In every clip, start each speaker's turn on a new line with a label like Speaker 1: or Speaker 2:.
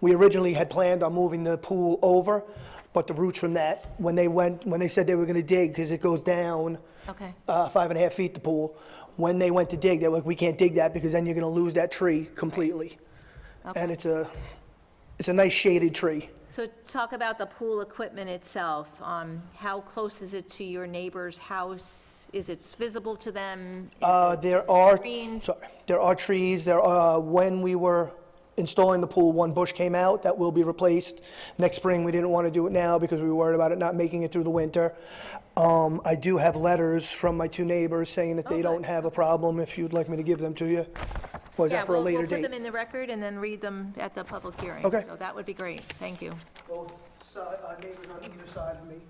Speaker 1: We originally had planned on moving the pool over, but the roots from that, when they went, when they said they were gonna dig, because it goes down
Speaker 2: Okay.
Speaker 1: uh, five and a half feet, the pool, when they went to dig, they're like, we can't dig that because then you're gonna lose that tree completely. And it's a, it's a nice shaded tree.
Speaker 2: So talk about the pool equipment itself. Um, How close is it to your neighbor's house? Is it visible to them? Is
Speaker 1: Uh,
Speaker 2: it- is
Speaker 1: There
Speaker 2: it
Speaker 1: are,
Speaker 2: screened?
Speaker 1: sorry, there are trees, there are, when we were installing the pool, one bush came out, that will be replaced. Next spring, we didn't want to do it now because we were worried about it not making it through the winter. Um, I do have letters from my two neighbors saying
Speaker 2: Oh,
Speaker 1: that they don't have a problem, if you'd like me to give them to you. Was
Speaker 2: Yeah,
Speaker 1: that for a
Speaker 2: we'll-
Speaker 1: later
Speaker 2: We'll put
Speaker 1: date?
Speaker 2: them in the record and then read them at the public hearing.
Speaker 1: Okay.
Speaker 2: So that would be great. Thank you.
Speaker 1: Both si- uh, neighbors on either side of me.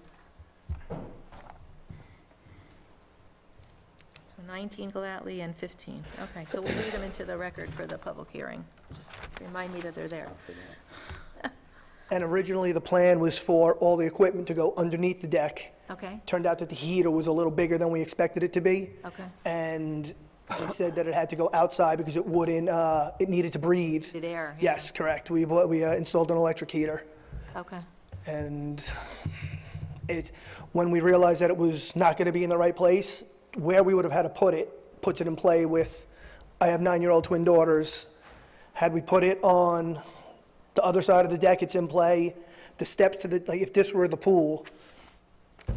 Speaker 2: So 19 Galatly and 15. Okay, so we'll read them into the record for the public hearing. Just remind me that they're there.
Speaker 1: And originally, the plan was for all the equipment to go underneath the deck.
Speaker 2: Okay?
Speaker 1: Turned out that the heater was a little bigger than we expected it to be.
Speaker 2: Okay.
Speaker 1: And they said that it had to go outside because it wouldn't, uh, it needed to breathe.
Speaker 2: Did air? yeah.
Speaker 1: Yes, correct. We, bought- we uh, installed an electric heater.
Speaker 2: Okay.
Speaker 1: And it, when we realized that it was not going to be in the right place, where we would have had to put it, puts it in play with, I have nine-year-old twin daughters. Had we put it on the other side of the deck, it's in play. The steps to the, like, if this were the pool,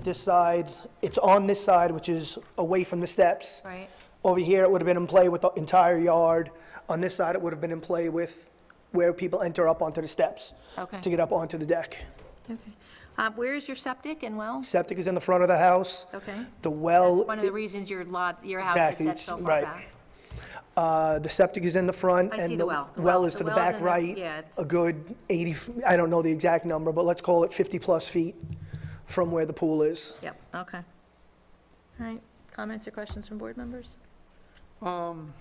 Speaker 1: this side, it's on this side, which is away from the steps.
Speaker 2: Right?
Speaker 1: Over here, it would have been in play with the entire yard. On this side, it would have been in play with where people enter up onto the steps
Speaker 2: Okay.
Speaker 1: to get up onto the deck.
Speaker 2: Okay. Uh, Where is your septic and well?
Speaker 1: Septic is in the front of the house.
Speaker 2: Okay.
Speaker 1: The well,
Speaker 2: One of the reasons your lot, your house is
Speaker 1: Exactly,
Speaker 2: set
Speaker 1: it's-
Speaker 2: so far
Speaker 1: right.
Speaker 2: back.
Speaker 1: uh, the septic is in the front.
Speaker 2: I
Speaker 1: and
Speaker 2: see the well. The well-
Speaker 1: Well is to
Speaker 2: the
Speaker 1: the
Speaker 2: well's in
Speaker 1: back
Speaker 2: the-
Speaker 1: right.
Speaker 2: yeah, it's-
Speaker 1: A good 80, f- I don't know the exact number, but let's call it 50-plus feet from where the pool is.
Speaker 2: Yep, okay. All right, comments or questions from board members?
Speaker 3: Um,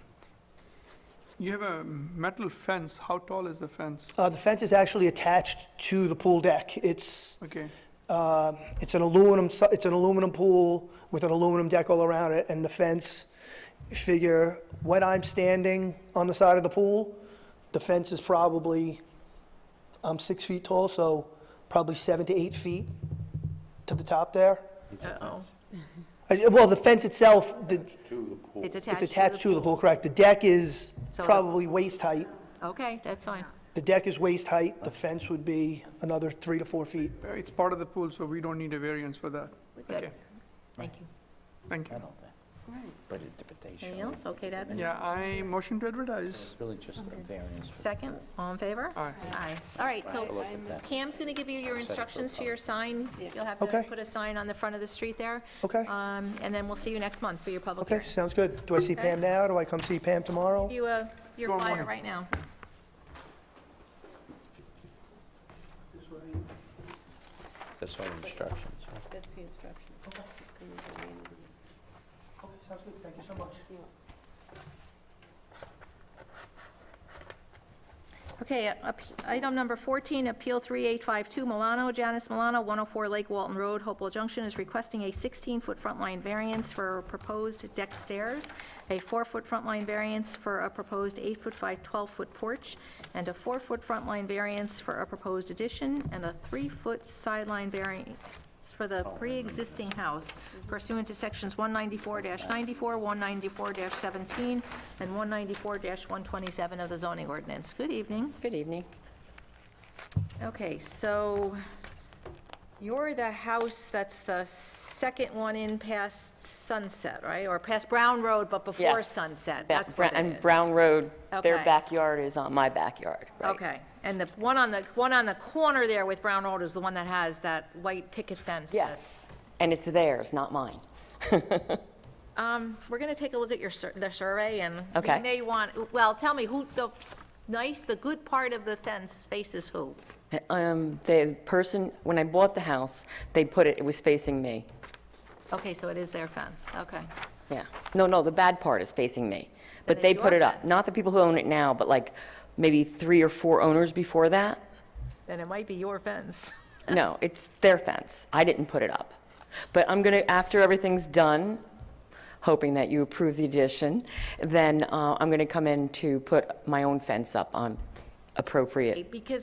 Speaker 3: You have a metal fence, how tall is the fence?
Speaker 1: Uh, The fence is actually attached to the pool deck. It's,
Speaker 3: Okay,
Speaker 1: Uh, It's an aluminum, su- it's an aluminum pool with an aluminum deck all around it, and the fence, figure, when I'm standing on the side of the pool, the fence is probably, I'm six feet tall, so probably seven to eight feet to the top there.
Speaker 2: Uh-oh.
Speaker 1: I- Well, the fence itself, the-
Speaker 2: It's
Speaker 1: it's
Speaker 2: attached.
Speaker 1: attached to the pool, correct? The deck is
Speaker 2: So the-
Speaker 1: probably waist height.
Speaker 2: Okay, that's fine.
Speaker 1: The deck is waist height, the fence would be another three to four feet.
Speaker 3: Uh, it's part of the pool, so we don't need a variance for that.
Speaker 2: Good,
Speaker 3: Okay,
Speaker 2: thank you.
Speaker 3: Thank you.
Speaker 4: But interpretation.
Speaker 2: Anything else? Okay, Dad?
Speaker 3: Yeah, I motion to advertise.
Speaker 4: Really just a variance. for-
Speaker 2: Second, all in favor?
Speaker 3: Aye.
Speaker 2: Aye. All right, so
Speaker 4: Look at that.
Speaker 2: Cam's going to give you your instructions for your sign. You'll have to
Speaker 1: Okay.
Speaker 2: put a sign on the front of the street there.
Speaker 1: Okay.
Speaker 2: Um, And then we'll see you next month for your public
Speaker 1: Okay,
Speaker 2: hearing.
Speaker 1: sounds good. Do I see Pam now? Do I come see Pam tomorrow?
Speaker 2: Give You, uh, your
Speaker 3: Tomorrow
Speaker 2: flyer
Speaker 3: morning.
Speaker 2: right now.
Speaker 4: That's all instructions, right?
Speaker 5: That's the instruction. Just come with the name of the-
Speaker 1: Okay, sounds good. Thank you so much.
Speaker 2: Okay, up- item number 14, Appeal 3852 Milano, Janice Milano, 104 Lake Walton Road, Hopewell Junction, is requesting a 16-foot front line variance for proposed deck stairs, a 4-foot front line variance for a proposed 8-foot 5, 12-foot porch, and a 4-foot front line variance for a proposed addition, and a 3-foot sideline variance it's for the pre-existing house pursuant to sections 194-94, 194-17, and 194-127 of the zoning ordinance. Good evening.
Speaker 5: Good evening.
Speaker 2: Okay, so you're the house that's the second one in past Sunset, right? Or past Brown Road, but before
Speaker 6: Yes.
Speaker 2: Sunset?
Speaker 6: Ba-
Speaker 2: That's
Speaker 6: Bra-
Speaker 2: what it
Speaker 6: And
Speaker 2: is.
Speaker 6: Brown Road,
Speaker 2: Okay.
Speaker 6: their backyard is on my backyard, right?
Speaker 2: Okay, and the one on the, one on the corner there with Brown Road is the one that has that white picket fence? that-
Speaker 6: Yes, and it's theirs, not mine.
Speaker 2: Um, We're going to take a look at your, sur- the survey, and
Speaker 6: Okay.
Speaker 2: you may want, well, tell me, who, the nice, the good part of the fence faces who?
Speaker 6: Um, The person, when I bought the house, they put it, it was facing me,
Speaker 2: Okay, so it is their fence, okay.
Speaker 6: yeah. No, no, the bad part is facing me, but
Speaker 2: it's
Speaker 6: they put
Speaker 2: your
Speaker 6: it up.
Speaker 2: fence.
Speaker 6: Not the people who own it now, but like maybe three or four owners before that.
Speaker 2: Then it might be your fence.
Speaker 6: No, it's their fence. I didn't put it up. But I'm going to, after everything's done, hoping that you approve the addition, then uh, I'm going to come in to put my own fence up on appropriate
Speaker 2: Because